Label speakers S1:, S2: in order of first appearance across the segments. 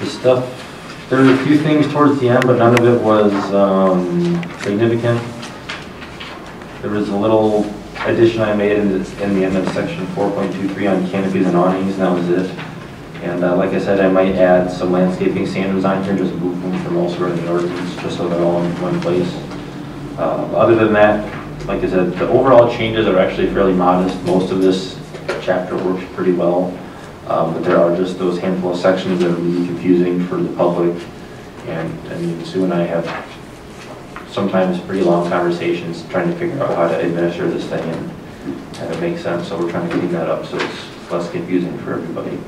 S1: the stuff, there were a few things towards the end, but none of it was um, significant. There was a little addition I made in the, in the end of section 4.23 on canopies and awnings, and that was it. And uh, like I said, I might add some landscaping standards on here, just move them from all sort of the ordinance, just so they're all in one place. Uh, Other than that, like I said, the overall changes are actually fairly modest. Most of this chapter works pretty well, Um, but there are just those handful of sections that are really confusing for the public. And, I mean, Sue and I have sometimes pretty long conversations trying to figure out how to administer this thing and have it make sense, so we're trying to clean that up so it's less confusing for everybody.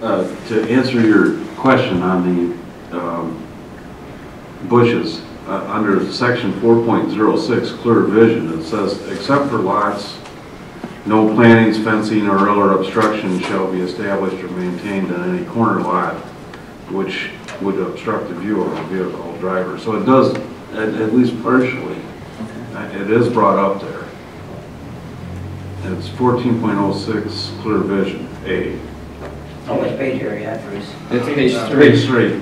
S2: Uh, To answer your question on the um, bushes, uh, under section 4.06, clear vision, it says, except for lots, no plantings, fencing, or other obstruction shall be established or maintained on any corner lot which would obstruct the view of a vehicle or driver. So it does, at at least partially, uh, it is brought up there. It's 14.06, clear vision, A.
S3: Oh, which page are you at, Bruce?
S4: It's page three.
S2: Page three.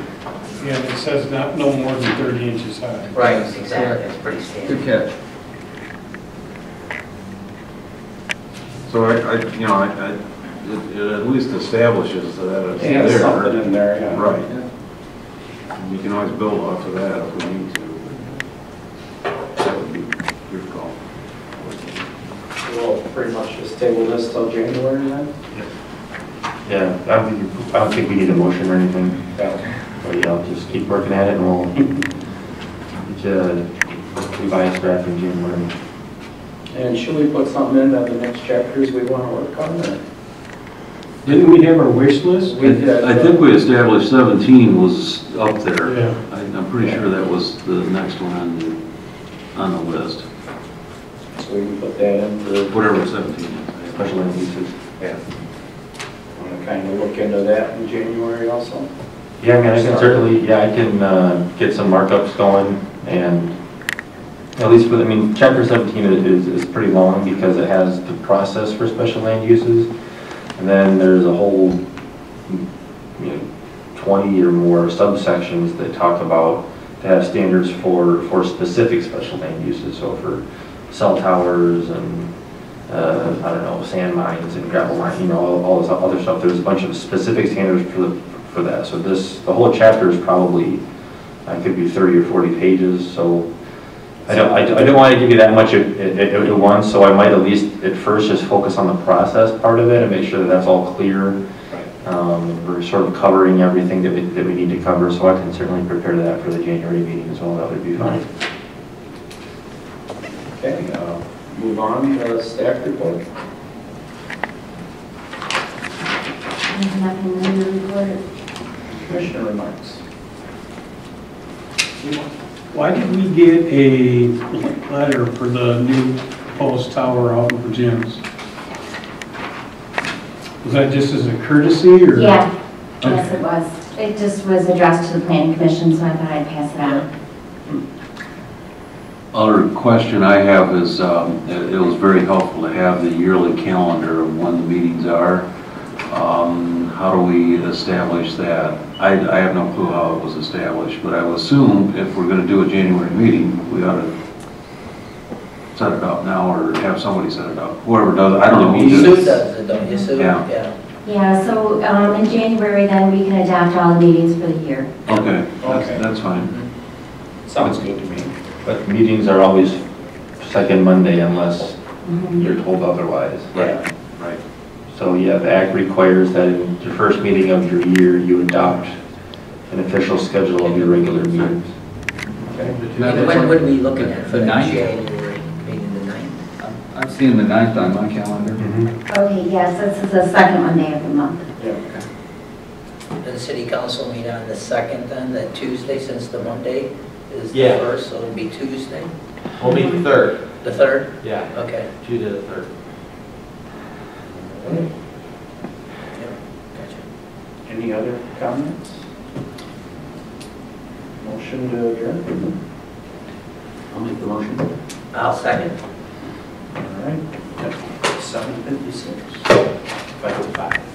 S5: Yeah, it says not, no more than 30 inches high.
S3: Exactly, it's pretty standard.
S4: Good catch.
S2: So I, I, you know, I, I, it it at least establishes that it's
S5: Yeah,
S2: there.
S5: something in there, yeah.
S2: Right. And You can always build off of that if we need to. That would be your call.
S6: We'll pretty much just table this till January then?
S1: Yeah, I don't think, you- I don't think we need a motion or anything, but yeah, just keep working at it and we'll, get you revise draft in January.
S6: And should we put something in that the next chapters we want to work on or?
S5: Didn't we have our wish list?
S6: We did,
S2: I think we established 17 was up there.
S5: Yeah.
S2: I- I'm pretty sure that was the next one on, the on the list,
S6: So we can put that in for,
S2: whatever 17 is.
S1: Special land uses.
S6: want to kind of look into that in January also?
S1: Yeah, I mean, I can certainly, yeah, I can uh, get some markups going and at least for, the- I mean, chapter 17 is, is pretty long because it has the process for special land uses. And then there's a whole, you know, 20 or more subsections that talk about, that have standards for, for specific special land uses. So for cell towers and, uh, I don't know, sand mines and gravel mines, you know, all, all this other stuff. There's a bunch of specific standards for, the for that. So this, the whole chapter is probably, I could be 30 or 40 pages, so I don't, I don't- I don't want to give you that much at, at- at at once, so I might at least at first just focus on the process part of it and make sure that that's all clear. Um, We're sort of covering everything that we, that we need to cover, so I can certainly prepare that for the January meeting as well, that would be fine.
S6: Okay, uh, move on to staff report.
S7: There's nothing new to report.
S6: Commissioner remarks.
S5: Why did we get a letter for the new post tower out in Jim's? Was that just as a courtesy or?
S7: Yeah, yes, it was. It just was addressed to the planning commission, so I thought I'd pass it on.
S2: Other question I have is, um, it it was very helpful to have the yearly calendar of when the meetings are. Um, How do we establish that? I I have no clue how it was established, but I would assume if we're going to do a January meeting, we ought to set it up now or have somebody set it up, whoever does, it. I don't know. who did
S3: Sue
S2: it.
S3: does it, don't you, Sue?
S2: Yeah.
S7: Yeah, so um, in January, then we can adopt all the meetings for the year.
S2: Okay,
S6: Okay.
S2: that's- that's fine.
S6: Sounds good to me.
S1: But meetings are always second Monday unless
S7: Mhm.
S1: you're told otherwise.
S6: Yeah.
S2: Right.
S1: So yeah, the act requires that in your first meeting of your year, you adopt an official schedule of your regular meetings.
S6: Okay.
S3: And When would we look at for
S4: The
S3: the
S4: ninth?
S3: January meeting, the ninth?
S4: I've seen the ninth on my calendar.
S5: Mm-hmm.
S7: Okay, yes, this is the second Monday of the month.
S6: Yeah.
S3: Does the city council meet on the second then, that Tuesday, since the Monday is the
S8: Yeah.
S3: first, so it'll be Tuesday,
S8: We'll meet the third,
S3: the third?
S8: yeah,
S3: Okay.
S8: Tuesday the third.
S3: Yep, gotcha.
S6: Any other comments? Motion to adjourn?
S1: I'll make the motion.
S3: I'll second.
S6: All right. Seven fifty-six.
S8: Five oh five.